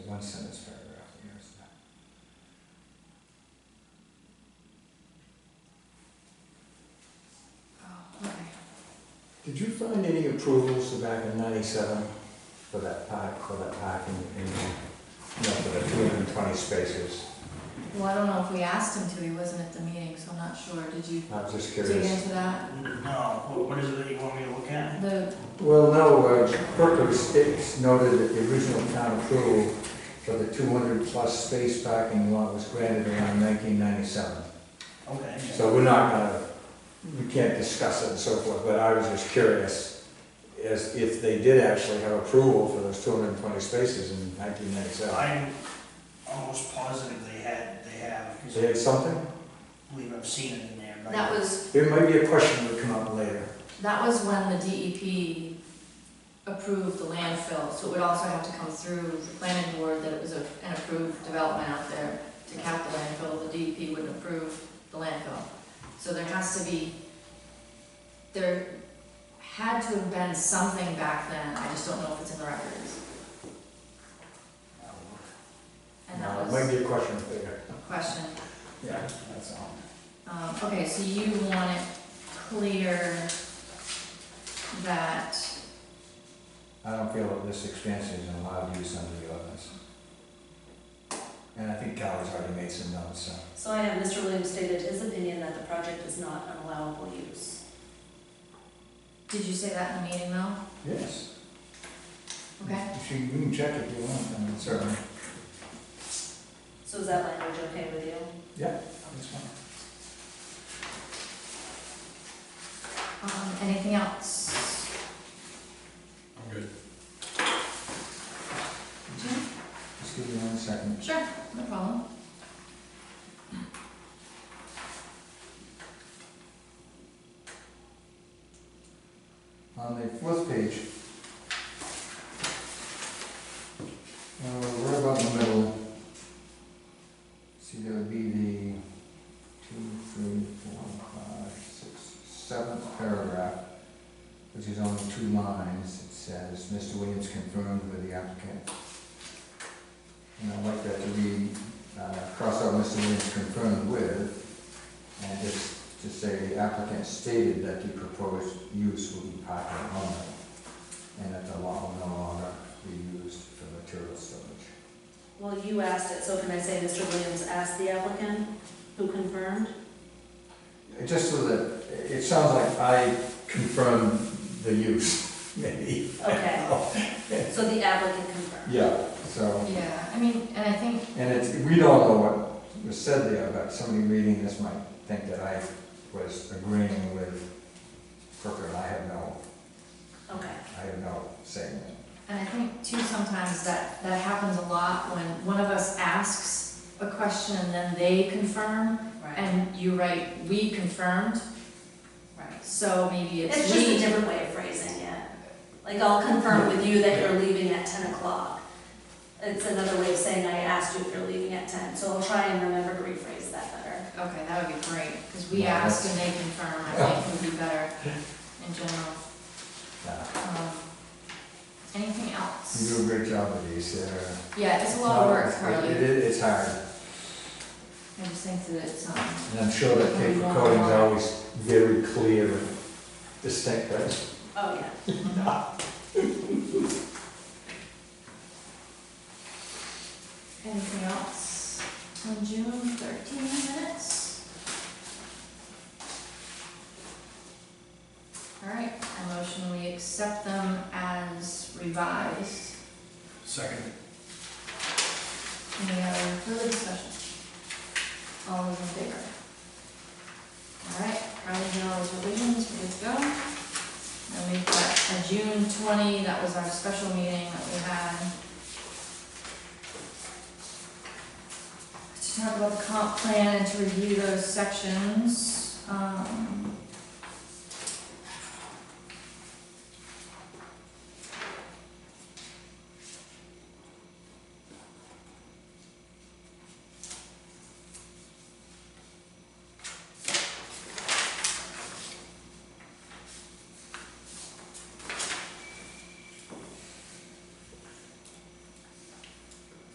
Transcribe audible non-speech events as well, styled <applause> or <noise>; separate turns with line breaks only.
one sentence paragraph in there, isn't there?
Oh, okay.
Did you find any approvals back in ninety-seven for that park, for that parking, in, you know, for the two hundred and twenty spaces?
Well, I don't know if we asked him to, he wasn't at the meeting, so I'm not sure. Did you
I was just
dig
curious.
into that?
No, what, what is it that you want me to look at?
The,
Well, no, uh, Berkeley Sticks noted that the original town approval for the two hundred plus space parking lot was granted around nineteen ninety-seven.
Okay.
So we're not gonna, we can't discuss it and so forth, but I was just curious as if they did actually have approval for those two hundred and twenty spaces in nineteen ninety-seven.
I'm almost positive they had, they have, because
They had something?
I believe I've seen it in there. but-
that was,
There might be a question that would come up later.
that was when the DEP approved the landfill, so it would also have to come through the planning board that it was a- an approved development out there to cap the landfill, the DEP wouldn't approve the landfill. So there has to be, there had to have been something back then, I just don't know if it's in the records.
I'll look.
And
Might
that was
be a question later.
a question.
Yeah, that's all.
Um, okay, so you want it clear that,
I don't feel that this expansion is allowed use under the ordinance. And I think Carol's already made some notes, so.
So I have Mr. Williams stated his opinion that the project is not an allowable use.
did you say that in the meeting though?
Yes.
Okay,
If you, you can check if you want, I mean, certainly.
So is that language okay with you?
That's fine.
um, anything else?
I'm good.
Jim?
Just give me one second.
Sure, no problem.
On the fourth page. Uh, right about in the middle. See, there would be the two, three, four, five, six, seventh paragraph, which is only two lines. It says, Mr. Williams confirmed with the applicant. And I'd like that to be, uh, cross out Mr. Williams confirmed with, and just to say the applicant stated that the proposed use will be parking only, and that the lot will no longer be used for material storage.
Well, you asked it, so can I say Mr. Williams asked the applicant who confirmed?
Uh, Just so that, it it sounds like I confirmed the use, <laughs> maybe.
Okay. So the applicant confirmed.
Yeah, so,
Yeah, I mean, and I think,
and it's, we don't know what was said there, but somebody reading this might think that I was agreeing with Crooker, and I have no,
Okay.
I have no say in it.
and I think too sometimes that, that happens a lot when one of us asks a question and then they confirm,
Right.
and you write, we confirmed,
Right.
so maybe it's we.
It's just a different way of phrasing it. Like, I'll confirm with you that you're leaving at ten o'clock. It's another way of saying I asked you if you're leaving at ten, so I'll try and remember to rephrase that better.
Okay, that would be great, because we
Yeah,
asked and they confirmed, I think would be better in general.
Yeah.
Um, Anything
You
else?
do a great job with these, they're-
Yeah, it's a lot of work,
No, it-
Carly.
It is hard,
I just think that it's, um,
and I'm sure that paper coding's always very clear and distinct, right?
Oh, yeah.
anything else on June thirteen minutes? All right, I motion we accept them as revised.
Second.
Any other further discussion? All those in favor? All right, Carly did all those revisions, we're good to go. And we've got a June twenty, that was our special meeting that we had. To talk about the comp plan and to review those sections, um.